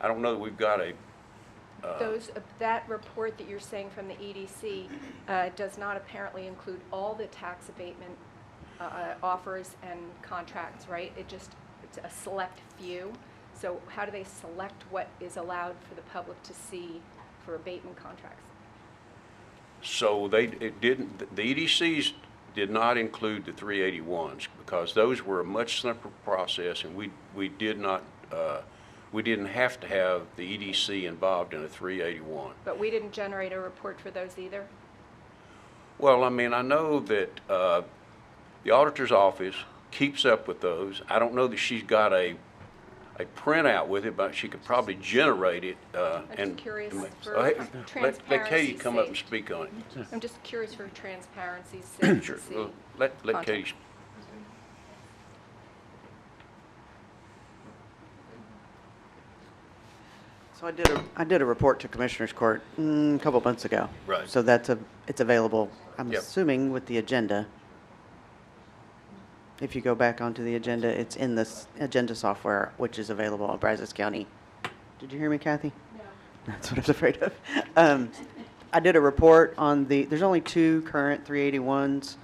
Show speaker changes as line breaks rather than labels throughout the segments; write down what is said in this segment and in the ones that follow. I don't know that we've got a,
Those, uh, that report that you're saying from the EDC uh, does not apparently include all the tax abatement uh, offers and contracts, right? It just, it's a select few. So how do they select what is allowed for the public to see for abatement contracts?
so they, it didn't, the EDCs did not include the 381s because those were a much simpler process and we, we did not, uh, we didn't have to have the EDC involved in a 381.
But we didn't generate a report for those either?
Well, I mean, I know that uh, the auditor's office keeps up with those. I don't know that she's got a, a printout with it, but she could probably generate it uh,
I'm
and.
just curious
and-
for
Oh, hey, let- Let Katie
transparency's
come up and
sake.
speak on it.
I'm just curious for transparency's sake
Sure.
to see.
Well, Let, Mm. let
Contact.
Katie,
So I did a, I did a report to Commissioners Court mm, a couple months ago.
Right.
So that's a, it's available, I'm
Yep.
assuming, with the agenda. If you go back onto the agenda, it's in this agenda software, which is available on Brazos County. Did you hear me, Kathy? No. That's what I was afraid of. Um, I did a report on the, there's only two current 381s,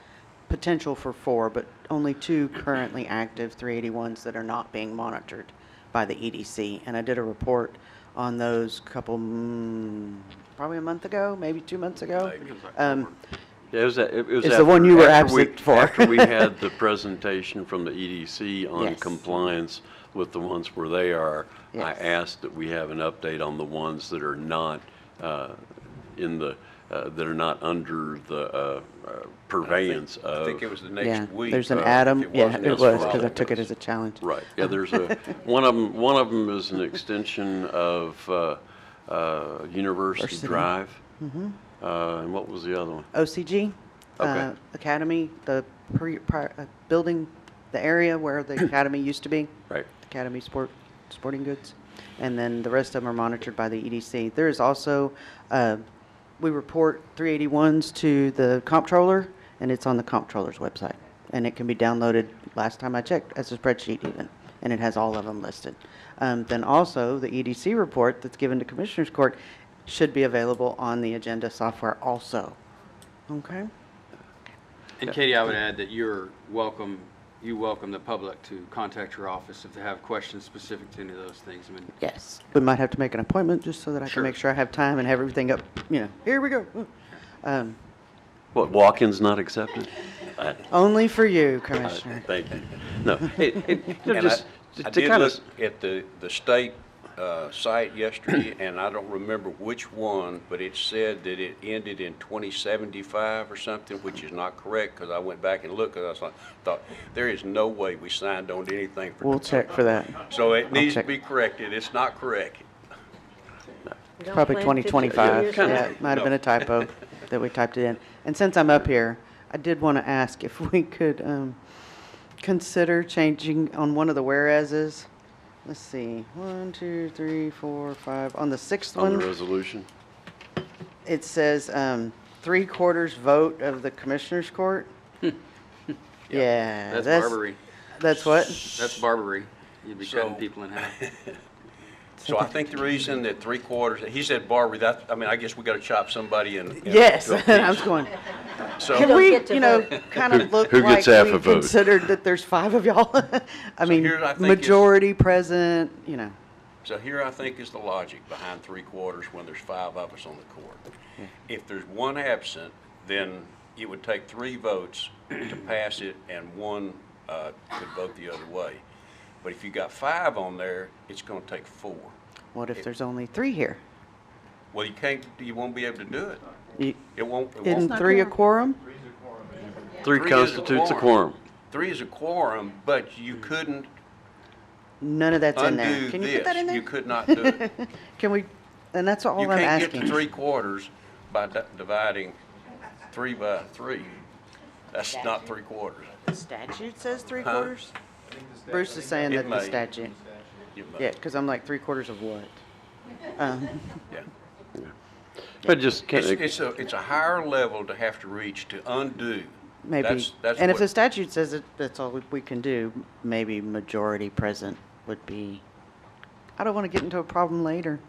potential for four, but only two currently active 381s that are not being monitored by the EDC. And I did a report on those couple, mm, probably a month ago, maybe two months ago.
Maybe.
Um,
Yeah, it was, a- it was.
It's the
after-
one you were
after we-
absent for.
After we had the presentation from the EDC on
Yes.
compliance with the ones where they are, I
Yes.
asked that we have an update on the ones that are not uh, in the, uh, that are not under the uh, uh, purveyance
I
of.
think it was the
Yeah,
next week.
there's an
uh, if
Adam,
it
yeah,
wasn't,
it
that's
it's
was,
fine.
because I
followed
took it as a challenge.
Right, yeah, there's a, one of them, one of 'em is an extension of uh, uh, University
Varsity.
Drive. Mm-hmm. And what was the other one?
OCG uh,
Okay.
Academy, the pre, pri- uh, building, the area where the academy used to be.
Right.
Academy Sport, Sporting Goods. And then the rest of them are monitored by the EDC. There is also, uh, we report 381s to the comptroller, and it's on the comptroller's website. And it can be downloaded, last time I checked, as a spreadsheet even, and it has all of them listed. Um, Then also, the EDC report that's given to Commissioners Court should be available on the agenda software also. Okay?
And Katie, I would add that you're welcome, you welcome the public to contact your office if they have questions specific to any of those things. I mean,
Yes. We might have to make an appointment just so that I can
Sure.
make sure I have time and have everything up, you know, here we go. Um,
What, walk-ins not accepted? I-
Only for you,
Uh,
Commissioner.
Thank you. No, it, it, you
And
know,
I-
just to
I did
kind
look
of,
at the, the state uh, site yesterday, and I don't remember which one, but it said that it ended in 2075 or something, which is not correct, because I went back and looked, because I was like, thought, there is no way we signed on to anything for.
We'll check for that.
So it needs to
check.
be corrected, it's not correct.
It's probably
plan 50
2025.
years
Yeah,
out.
it might have been a typo that we typed it in. And since I'm up here, I did want to ask if we could um, consider changing on one of the whereases. Let's see, one, two, three, four, five. On the sixth
on the
one,
resolution,
it says um, three quarters vote of the Commissioners Court. Yeah.
that's Barbary.
That's what?
That's Barbary. You'd be cutting
So-
people in half.
So I think the reason that three quarters, he said, Barbara, that, I mean, I guess we got to chop somebody in. in
Yes,
to a piece.
I was going.
So-
Can
don't
we,
get to
you know,
vote.
kind of look
who
like
gets half
we
a vote?
considered that there's five of y'all? I mean,
here's what I think is-
majority present, you know.
So here I think is the logic behind three quarters when there's five of us on the court.
Hmm.
If there's one absent, then it would take three votes to pass it and one uh, could vote the other way. But if you got five on there, it's going to take four.
What if there's only three here?
Well, you can't, you won't be able to do it.
You-
It won't, it
Isn't
won't.
three a quorum?
three
Three is a
constitutes a
quorum.
quorum. Hmm.
Three is a quorum, but you couldn't
None of that's in
undo
there. Can you put that in
this. You
there?
could not do it.
Can we, and that's all
You
I'm
can't get to
asking.
three quarters by di- dividing three by three. That's not three quarters.
The statute says three
Huh?
quarters? Bruce is saying
It
that the
may.
statute.
You mu-
Yeah, because I'm like, three quarters of what? Um,
yeah.
But just
It's,
can't,
it's a, it's a higher level to have to reach to undo.
Maybe.
That's- that's
And if
what-
the statute says that that's all we can do, maybe majority present would be I don't want to get into a problem later.